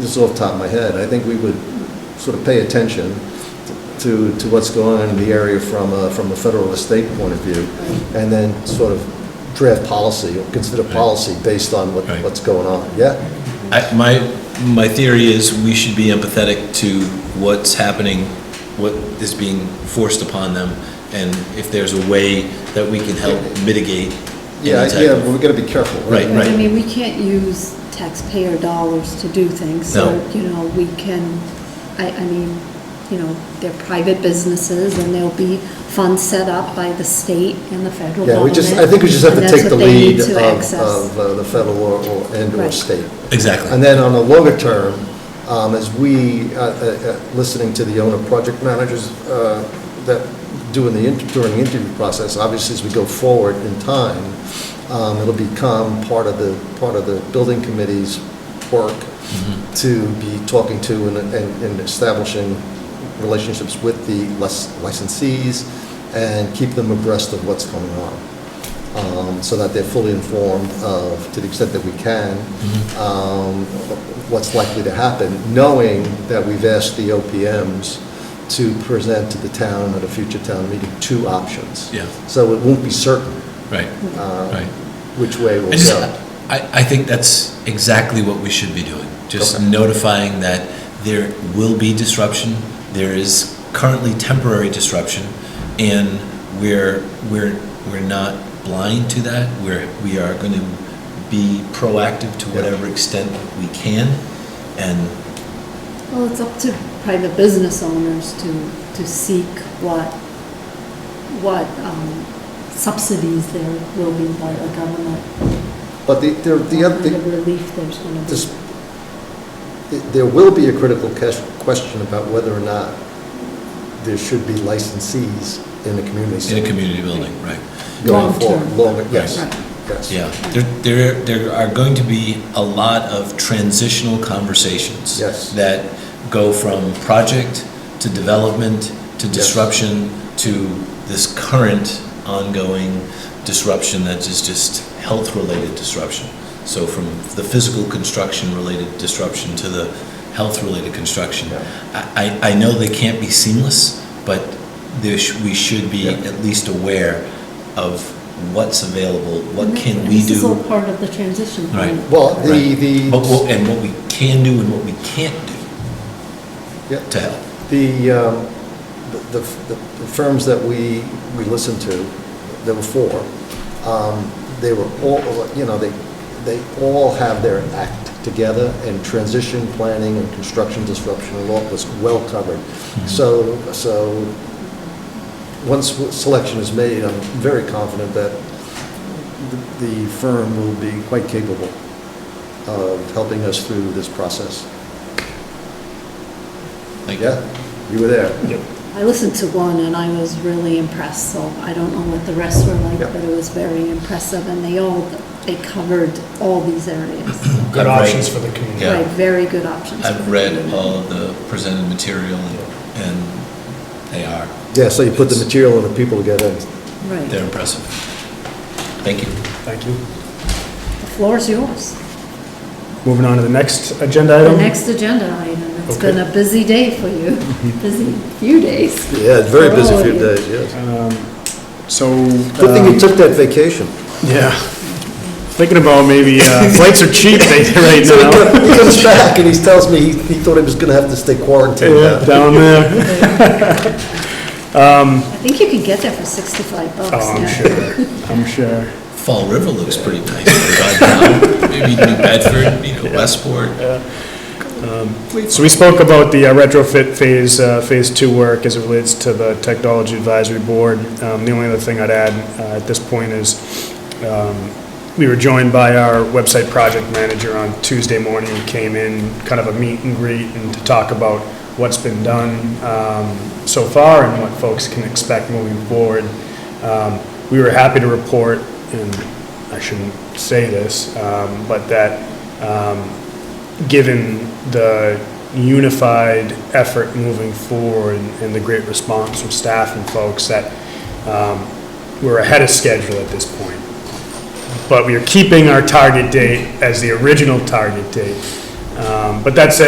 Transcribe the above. this is off the top of my head, I think we would sort of pay attention to, to what's going on in the area from a, from a federal estate point of view, and then sort of draft policy, or consider policy based on what, Right. what's going on, yeah? I- My, my theory is we should be empathetic to what's happening, what is being forced upon them, and if there's a way that we can help mitigate Yeah, any yeah, type but of... we gotta be careful, right? Right, right. I mean, we can't use taxpayer dollars to do things, so, No. you know, we can, I, I mean, you know, they're private businesses, and there'll be funds set up by the state and the federal Yeah, we government. just, I think we just have to and take that's the what they need lead of, to access. of uh, the federal or, or- and or Right. state. And Exactly. then on the longer term, um, as we, uh, uh, uh, listening to the owner project managers uh, that doing the, inter- during the interview process, obviously as we go forward in time, um, it'll become part of the, part of the building committee's work to be talking to and- and and establishing relationships with the lic- licensees and keep them abreast of what's going on um, so that they're fully informed of, to the extent that we can, Mm-hmm. um, what's likely to happen, knowing that we've asked the OPMs to present to the town at a future town meeting two options. Yeah. So it won't be certain Right, uh, right. which way we'll I just, go. I, I think that's exactly what we should be doing. Just Okay. notifying that there will be disruption, there is currently temporary disruption, and we're, we're, we're not blind to that. We're, we are going to be proactive to Yeah. whatever extent we can, and, Well, it's up to private business owners to, to seek what, what um, subsidies there will be by the government, But the, the, what the kind other, of relief there's gonna be. This- there will be a critical ques- question about whether or not there should be licensees in the community in a center community building, right? going Long forward. term. Longer, yes, Right. yes. Yeah, there, there, there are going to be a lot of transitional conversations. Yes. That go from project to development to Yes. disruption to this current ongoing disruption that is just health-related disruption. So from the physical construction-related disruption to the health-related construction. Yeah. I, I- I know they can't be seamless, but there, sh- we should be Yeah. at least aware of what's available, what And can that- we This is all do? part of the transition plan. Right. Well, the, Right. the. But what- And what we can do and what we can't do Yeah. to help. The, um, the the the firms that we, we listened to, there were four, um, they were all, you know, they, they all have their act together, and transition planning and construction disruption law was well covered. So, so, once selection is made, I'm very confident that the- the firm will be quite capable of helping us through this process. Like, Yeah, you were there. I listened to one and I was really impressed, so I don't know what the rest were like, Yeah. but it was very impressive and they all, they covered all these areas. good I've read- options for the community. Yeah. Right, very good options. for I've the read community. all of the presented material and, and they are, Yeah, so you put the It's- material and the people together. Right. they're impressive. Thank you. Thank you. The floor is yours. Moving on to the next agenda The item. next agenda item. It's Okay. been a busy day for you, busy few days. Yeah, very For busy all of few you. days, yes. So. Good thing um, you took that vacation. Yeah. Thinking about maybe, uh, flights are cheap they- right So he now. co- he comes back and he tells me he he thought he was going to have to stay quarantined. Yeah, now. Down there. I think you can get there for 65 bucks. Oh, I'm now. sure, I'm sure. Fall River looks pretty nice. But, um, Maybe New Bedford, you know, Westport. So we spoke about the uh, retrofit phase, uh, phase two work as it relates to the technology advisory board. Um, The only other thing I'd add uh, at this point is, um, we were joined by our website project manager on Tuesday morning, who came in, kind of a meet and greet, and to talk about what's been done um, so far and what folks can expect moving forward. Um, We were happy to report, and I shouldn't say this, um, but that um, given the unified effort moving forward and the great response from staff and folks, that um, we're ahead of schedule at this point. But we are keeping our target date as the original target date. Um, But that said,